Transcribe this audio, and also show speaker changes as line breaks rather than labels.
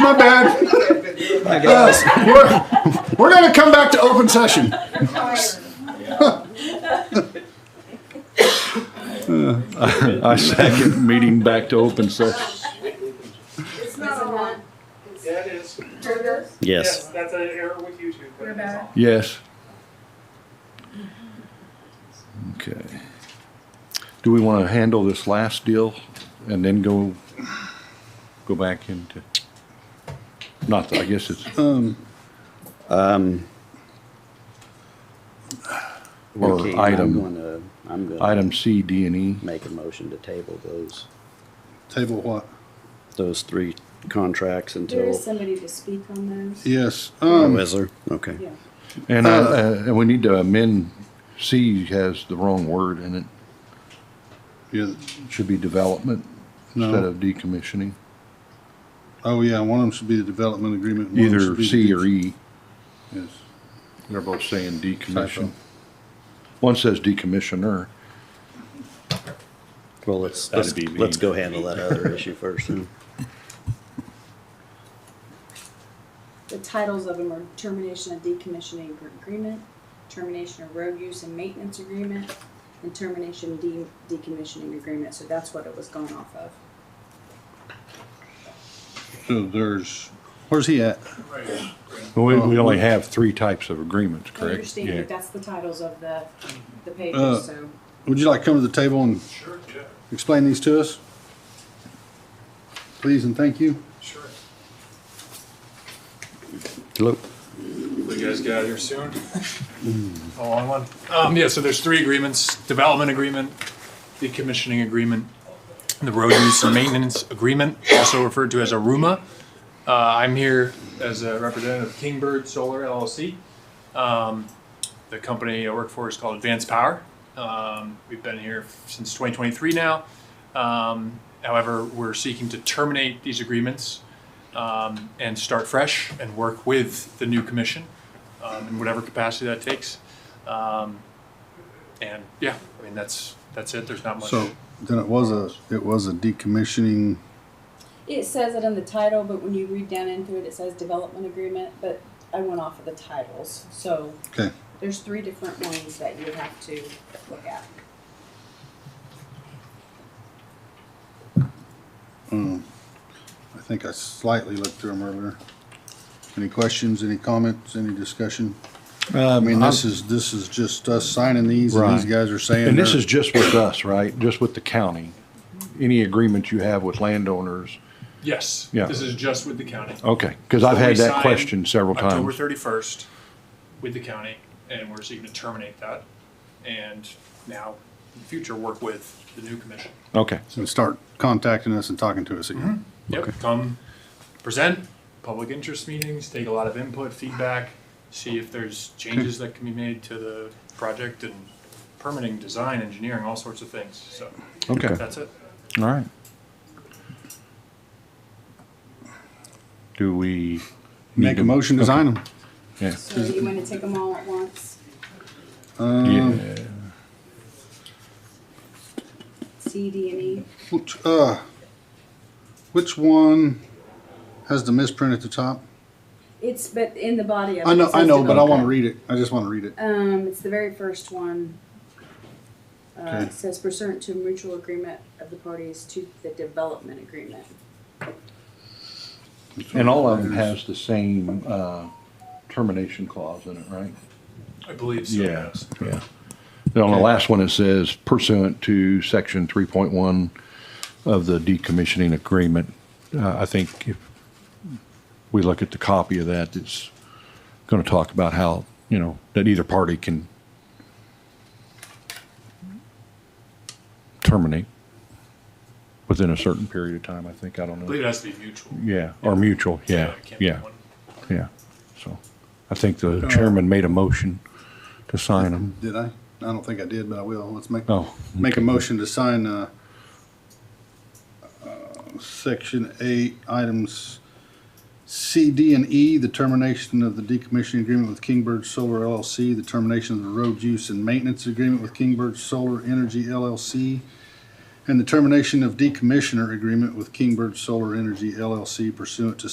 My bad. Uh, we're, we're gonna come back to open session.
I second meeting back to open session.
It's not a lot.
Yeah, it is.
Burger.
Yes.
That's an error with YouTube. but
We're
that's
back.
all.
Yes. Okay. Do we want to handle this last deal and then go, go back into? Not, that- I guess it's, Or
Okay,
item.
I'm gonna, I'm gonna
item C, D, and E.
make a motion to table those,
Table what?
those three contracts
There
until.
is somebody to speak on those.
Yes,
Oh,
um,
is there? Okay.
Yeah.
And I, uh, and we need to amend, C has the wrong word in it.
yeah,
Should be development instead
no,
of decommissioning,
oh yeah, one of them should be the development agreement. one of them
either
should be the
C
de-
or E.
Yes,
They're both saying decommission.
Typo.
One says decommissioner.
Well, let's,
That'd
let's,
be me.
let's go handle that other issue first. then.
The titles of them are termination of decommissioning agreement, termination of road use and maintenance agreement, and termination de- decommissioning agreement, so that's what it was going off of.
so there's, where's he at?
We, we
Oh.
only have three types of agreements,
I
correct?
understand,
Yeah.
but that's the titles of the, the
Uh,
pages, so.
Would you like to come to the table and
Sure, yeah,
explain these to us? Please and thank you.
sure.
Hello?
You guys get out of here soon? A long one. Um, yeah, so there's three agreements, development agreement, decommissioning agreement, and the road use and maintenance agreement, also referred to as a RUMA. Uh, I'm here as a representative of Kingbird Solar LLC. Um, the company I work for is called Advanced Power. Um, we've been here since 2023 now. Um, however, we're seeking to terminate these agreements um, and start fresh and work with the new commission um, in whatever capacity that takes. Um, and yeah, I mean that's that's it. There's not much.
So then it was a, it was a decommissioning,
It says it in the title, but when you read down into it, it says development agreement, but I went off of the titles, so
okay,
there's three different ones that you have to look at.
I think I slightly looked through them earlier. Any questions, any comments, any discussion? I mean, this is, this is just us signing these and these
Um, Right.
guys are saying.
And this
they're-
is just with us, right? Just with the county? Any agreement you have with landowners?
yes,
Yeah.
this is just with the county.
Okay, because I've had
We
that
signed
question several
October
times.
31st with the county, and we're seeking to terminate that, and now in the future work with the new commission.
Okay,
and start contacting us and talking to us
Mm-hmm.
again.
Yep, come present, public interest meetings, take a lot of input, feedback, see if there's changes that can be made to the project and permitting, design, engineering, all sorts of things. So
okay,
that's it.
all right. Do we?
Make a motion to sign them.
Yeah.
So you wanna take them all at once?
Um, Yeah.
C, D, and E.
Which, uh, which one has the misprint at the top?
It's but in the body of it.
I know,
it
I
says
know, but I want to
development.
read it. I just want to read it.
Um, it's the very first one. Uh,
Okay.
it says pursuant to mutual agreement of the parties to the development agreement.
And all of them has the same, uh, termination clause in it, right?
I believe so,
Yeah,
yes.
yeah. Then on the
Okay.
last one, it says pursuant to section three point one of the decommissioning agreement. Uh, I think if we look at the copy of that, it's gonna talk about how, you know, that either party can terminate within a certain period of time, I think. I don't
I believe
know.
it has to be mutual.
Yeah, or mutual, yeah,
it can't be
yeah,
one.
yeah. So I think the chairman made a motion to sign them.
Did I? I don't think I did, but I will. Let's make,
Oh.
make a motion to sign, uh, uh, section eight, items C, D, and E, the termination of the decommissioning agreement with Kingbird Solar LLC, the termination of the road use and maintenance agreement with Kingbird Solar Energy LLC, and the termination of decommissioner agreement with Kingbird Solar Energy LLC pursuant to